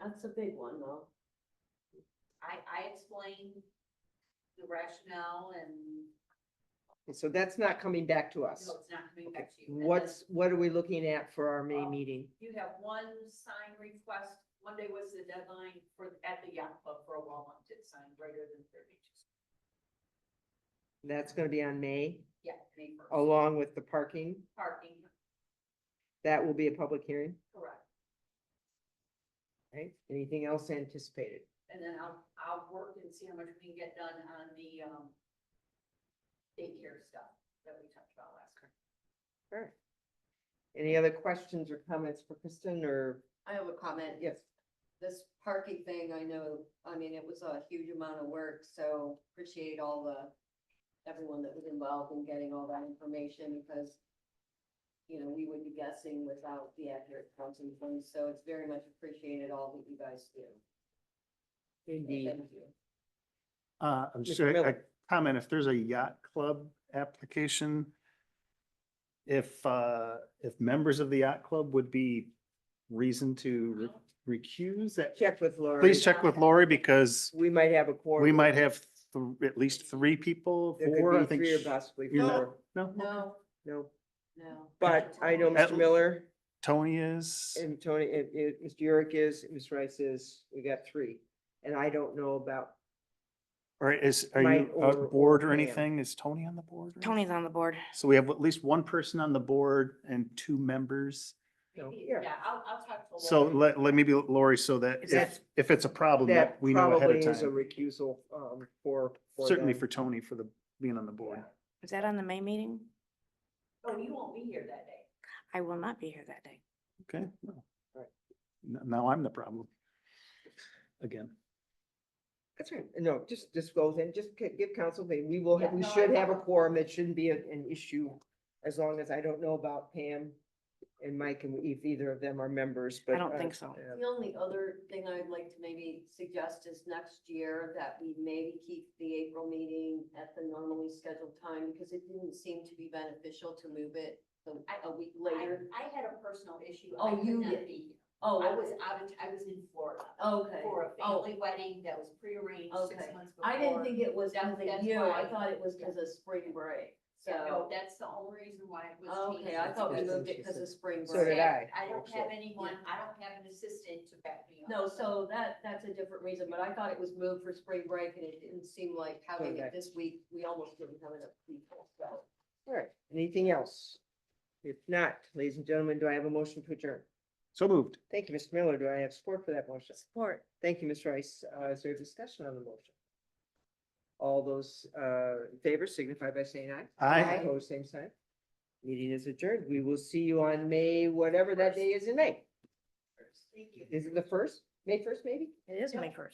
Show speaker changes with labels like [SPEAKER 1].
[SPEAKER 1] That's a big one though.
[SPEAKER 2] I, I explained the rationale and,
[SPEAKER 3] So that's not coming back to us.
[SPEAKER 2] no, it's not coming
[SPEAKER 3] Okay.
[SPEAKER 2] back to you. And then
[SPEAKER 3] What's, what are we looking at for our May
[SPEAKER 2] Um,
[SPEAKER 3] meeting?
[SPEAKER 2] You have one sign request, Monday was the deadline for, at the yacht club for a wall-mounted sign greater than thirty inches.
[SPEAKER 3] That's gonna be on May,
[SPEAKER 2] Yeah, May first.
[SPEAKER 3] along with the parking.
[SPEAKER 2] Parking,
[SPEAKER 3] That will be a public hearing,
[SPEAKER 2] correct.
[SPEAKER 3] right? Anything else anticipated?
[SPEAKER 2] And then I'll, I'll work and see how much we can get done on the, um, daycare stuff that we talked about last time.
[SPEAKER 3] All right. Any other questions or comments for Kristen or,
[SPEAKER 4] I have a comment.
[SPEAKER 3] yes,
[SPEAKER 4] This parking thing, I know, I mean, it was a huge amount of work, so appreciate all the, everyone that was involved in getting all that information because, you know, we would be guessing without the accurate counts and things, so it's very much appreciated all that you guys do.
[SPEAKER 3] indeed.
[SPEAKER 4] Thank you.
[SPEAKER 5] Uh, I'm
[SPEAKER 3] Mr.
[SPEAKER 5] just, a
[SPEAKER 3] Miller.
[SPEAKER 5] a comment, if there's a yacht club application, if, uh, if members of the yacht club would be reason to
[SPEAKER 3] Mm-hmm.
[SPEAKER 5] re- recuse that,
[SPEAKER 3] Check with Laura.
[SPEAKER 5] please check with Lori because
[SPEAKER 3] We might have a quorum.
[SPEAKER 5] we might have th- at least three people,
[SPEAKER 3] There
[SPEAKER 5] four,
[SPEAKER 3] could
[SPEAKER 5] I
[SPEAKER 3] be
[SPEAKER 5] think.
[SPEAKER 3] three or
[SPEAKER 5] sh-
[SPEAKER 3] possibly
[SPEAKER 5] you know-
[SPEAKER 3] four,
[SPEAKER 5] No,
[SPEAKER 4] No,
[SPEAKER 3] no.
[SPEAKER 4] no.
[SPEAKER 3] But I know Mr.
[SPEAKER 5] At-
[SPEAKER 3] Miller
[SPEAKER 5] Tony is,
[SPEAKER 3] and Tony, and, and Mr. Yurick is, and Ms. Rice is, we got three. And I don't know about,
[SPEAKER 5] or is, are
[SPEAKER 3] Mike
[SPEAKER 5] you
[SPEAKER 3] or-
[SPEAKER 5] on board
[SPEAKER 3] or
[SPEAKER 5] or
[SPEAKER 3] Pam.
[SPEAKER 5] anything? Is Tony on the board? or
[SPEAKER 6] Tony's on the board.
[SPEAKER 5] anything? So we have at least one person on the board and two members.
[SPEAKER 3] No,
[SPEAKER 2] Maybe-
[SPEAKER 3] yeah.
[SPEAKER 2] Yeah, I'll, I'll talk to.
[SPEAKER 5] So
[SPEAKER 2] Lori.
[SPEAKER 5] let, let me be Lori, so that if,
[SPEAKER 3] That-
[SPEAKER 5] if it's a problem, that
[SPEAKER 3] that
[SPEAKER 5] we know ahead
[SPEAKER 3] probably
[SPEAKER 5] of
[SPEAKER 3] is a
[SPEAKER 5] time.
[SPEAKER 3] recusal, um, for.
[SPEAKER 5] Certainly
[SPEAKER 3] them.
[SPEAKER 5] for Tony for the, being on the board.
[SPEAKER 6] Is that on the May meeting?
[SPEAKER 2] Oh, you won't be here that day.
[SPEAKER 6] I will not be here that day.
[SPEAKER 5] Okay. well.
[SPEAKER 3] Right.
[SPEAKER 5] N- Now I'm the problem. Again.
[SPEAKER 3] That's right. No, just, just go then, just gi- give council, they- we will, have
[SPEAKER 2] Yeah,
[SPEAKER 3] we
[SPEAKER 2] no, I
[SPEAKER 3] should have a
[SPEAKER 2] will.
[SPEAKER 3] quorum. It shouldn't be an, an issue. As long as I don't know about Pam and Mike and if either of them are members, but.
[SPEAKER 6] don't
[SPEAKER 3] uh,
[SPEAKER 6] think so.
[SPEAKER 3] uh,
[SPEAKER 4] The only other thing I'd like to maybe suggest is next year that we maybe keep the April meeting at the normally scheduled time because it didn't seem to be beneficial to move it the-
[SPEAKER 2] I-
[SPEAKER 4] a week
[SPEAKER 2] I-
[SPEAKER 4] later.
[SPEAKER 2] I had a personal issue.
[SPEAKER 4] Oh,
[SPEAKER 2] I could
[SPEAKER 4] you
[SPEAKER 2] not
[SPEAKER 4] did.
[SPEAKER 2] be here.
[SPEAKER 4] Oh,
[SPEAKER 2] I was out of, I was in Florida
[SPEAKER 4] Okay.
[SPEAKER 2] for a
[SPEAKER 4] Oh.
[SPEAKER 2] family wedding that was prearranged six
[SPEAKER 4] Okay.
[SPEAKER 2] months before.
[SPEAKER 4] I didn't think it was
[SPEAKER 2] That's-
[SPEAKER 4] because of
[SPEAKER 2] that's
[SPEAKER 4] you.
[SPEAKER 2] why
[SPEAKER 4] I
[SPEAKER 2] I-
[SPEAKER 4] thought it was
[SPEAKER 2] yeah.
[SPEAKER 4] because of spring break.
[SPEAKER 2] Yeah, no,
[SPEAKER 4] So,
[SPEAKER 2] that's the only reason why it was changed.
[SPEAKER 4] okay, I thought we
[SPEAKER 3] That's what
[SPEAKER 4] moved it
[SPEAKER 3] she
[SPEAKER 4] because
[SPEAKER 3] said.
[SPEAKER 4] of spring
[SPEAKER 3] So did
[SPEAKER 4] break.
[SPEAKER 3] I.
[SPEAKER 2] I don't have
[SPEAKER 3] actually.
[SPEAKER 2] anyone, I don't have an assistant to back me up.
[SPEAKER 4] No, so that, that's a different reason, but I thought it was moved for spring break and it didn't seem like having
[SPEAKER 3] Correct.
[SPEAKER 4] it this week, we almost didn't have enough people, so.
[SPEAKER 3] All right, anything else? If not, ladies and gentlemen, do I have a motion to adjourn?
[SPEAKER 5] So moved.
[SPEAKER 3] Thank you, Mr. Miller. Do I have support for that motion? Support. Thank you, Ms. Rice. Uh, is there a discussion on the motion? All those, uh, in favor signify by saying aye.
[SPEAKER 5] I,
[SPEAKER 3] Opposed, same sign. Meeting is adjourned. We will see you on May, whatever that day is in May.
[SPEAKER 2] Thank you.
[SPEAKER 3] Is it the first? May first, maybe?
[SPEAKER 6] It is May first.